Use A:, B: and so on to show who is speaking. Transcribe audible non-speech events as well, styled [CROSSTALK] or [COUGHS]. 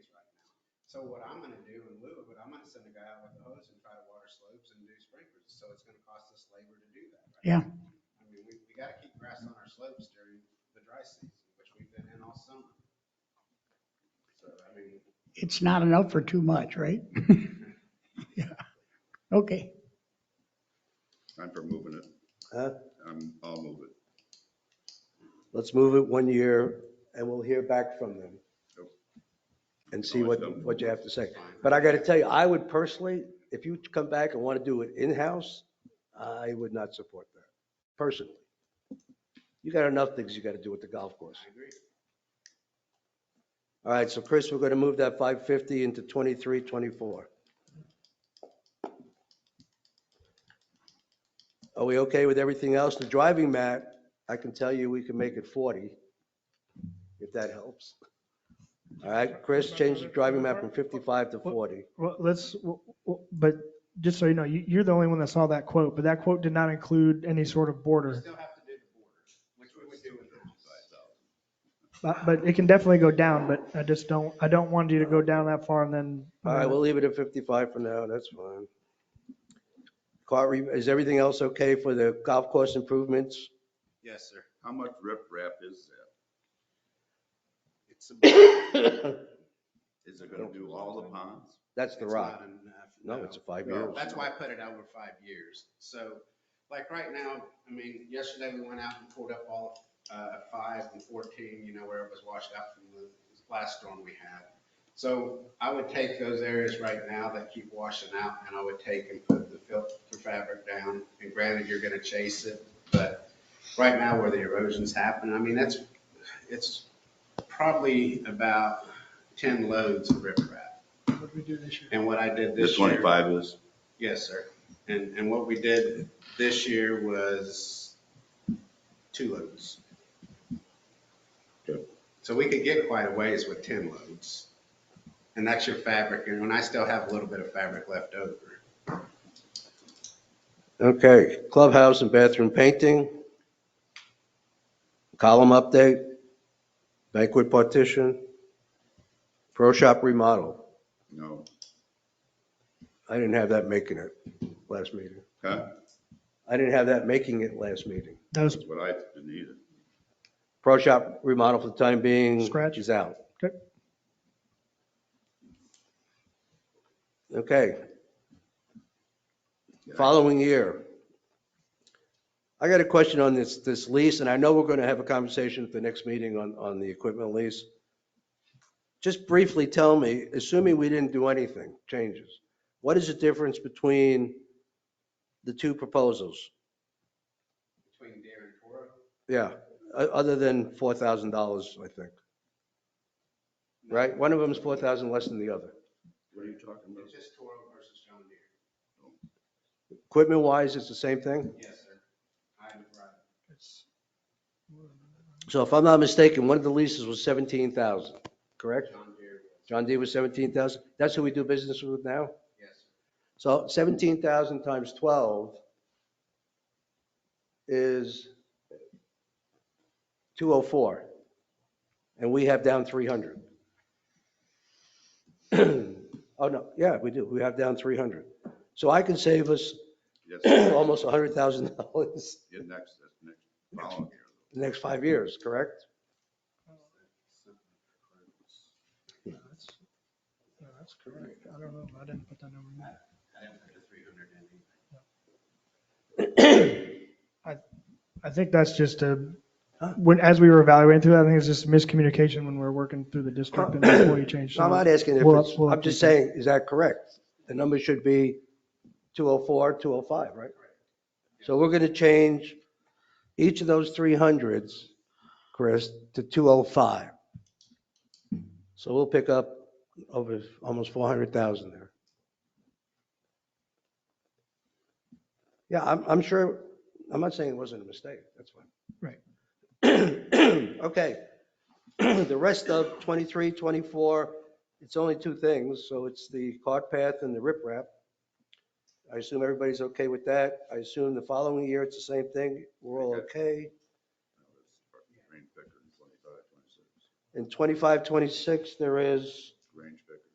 A: So what I'm gonna do in lieu of it, I'm gonna send a guy out with a hose and try to water slopes and do sprinklers, so it's gonna cost us labor to do that. right?
B: Yeah.
A: I mean, we, we gotta keep grass on our slopes during the dry season, which we've been in all summer. So, I mean,
B: It's not enough for too much, right? [LAUGHS] Yeah. Okay,
C: I'm for moving it.
D: Huh?
C: I'm, I'll move it.
D: Let's move it one year and we'll hear back from them.
C: Yep.
D: And see what,
C: Always done.
D: what you have to say.
A: it's fine.
D: But I got to tell you, I would personally, if you come back and want to do it in-house, I would not support that, personally. You got enough things you got to do with the golf course.
A: I agree.
D: All right, so Chris, we're going to move that 550 into 23, 24. Are we okay with everything else? The driving mat, I can tell you, we can make it 40, if that helps. All right, Chris, change the driving mat from 55 to 40.
E: Well, let's, w- w- but just so you know, you- you're the only one that saw that quote, but that quote did not include any sort of
A: We
E: border.
A: still have to do the border, which we would do in house. uh.
E: But but it can definitely go down, but I just don't, I don't want you to go down that far and then. uh,
D: All right, we'll leave it at 55 for now, that's fine. Cart, re- is everything else okay for the golf course improvements?
A: Yes, sir.
C: How much riprap is that?
A: [COUGHS] It's a-
C: Is it gonna do all the ponds?
D: That's the
A: it's
D: rock.
A: not enough,
D: No, it's a five years.
A: That's why I put it over five years. So like right now, I mean, yesterday we went out and pulled up all uh, five and 14, you know, where it was washed out from the last storm we had. So I would take those areas right now that keep washing out and I would take and put the filter fabric down. And granted, you're going to chase it, but right now where the erosion's happening, I mean, that's, it's probably about 10 loads of riprap.
E: What we do this year?
A: And what I did
C: The
A: this year.
C: twenty-five is?
A: Yes, sir. And, and what we did this year was two loads.
C: Good.
A: So we could get quite a ways with 10 loads. And that's your fabric, and when I still have a little bit of fabric left over.
D: Okay, clubhouse and bathroom painting. Column update, banquet partition, pro shop remodel.
C: No.
D: I didn't have that making it last meeting.
C: Huh?
D: I didn't have that making it last meeting.
E: That was
C: That's what I didn't either.
D: Pro shop remodel for the time being.
E: Scratch.
D: Is out.
E: Okay.
D: Okay. Following year. I got a question on this, this lease, and I know we're going to have a conversation at the next meeting on, on the equipment lease. Just briefly tell me, assuming we didn't do anything, changes, what is the difference between the two proposals?
A: Between Deere and Toro,
D: Yeah, o- Uh, other than $4,000, I think. Right? One of them is 4,000 less than the other.
C: What are you talking about?
A: it's just Toro versus John Deere.
D: Equipment wise, it's the same thing.
A: Yes, sir. I'm right.
D: So if I'm not mistaken, one of the leases was 17,000, correct?
A: John Deere, was-
D: John D was 17,000. That's who we do business with now?
A: yes, sir.
D: So 17,000 times 12 is 204. And we have down 300. [CLEARS THROAT] Oh, no, yeah, we do. We have down 300. So I can save us [CLEARS THROAT]
C: [COUGHS] Yes,
D: almost $100,000
C: in next, that's next, following year.
D: the next five years, correct?
E: No, that's no, oh, that's correct. I don't know. I didn't put that number in.
A: I didn't put the 300 in either.
E: I think that's just a,
D: Huh?
E: when, as we were evaluating through that, I think it's just miscommunication when we're working through the district and before you change.
D: No, I'm not asking if
E: We'll up-
D: it's,
E: we'll
D: I'm
E: update
D: just
E: that.
D: saying, is that correct? The number should be 204, 205, right? So we're going to change each of those 300s, Chris, to 205. So we'll pick up over almost 400,000 there. Yeah, I'm, I'm sure, I'm not saying it wasn't a mistake, that's fine.
E: Right.
D: [CLEARS THROAT] Okay. The rest of 23, 24, it's only two things, so it's the cart path and the riprap. I assume everybody's okay with that. I assume the following year, it's the same thing. We're all okay.
C: Between Pickering, 25, 26.
D: In 25, 26, there is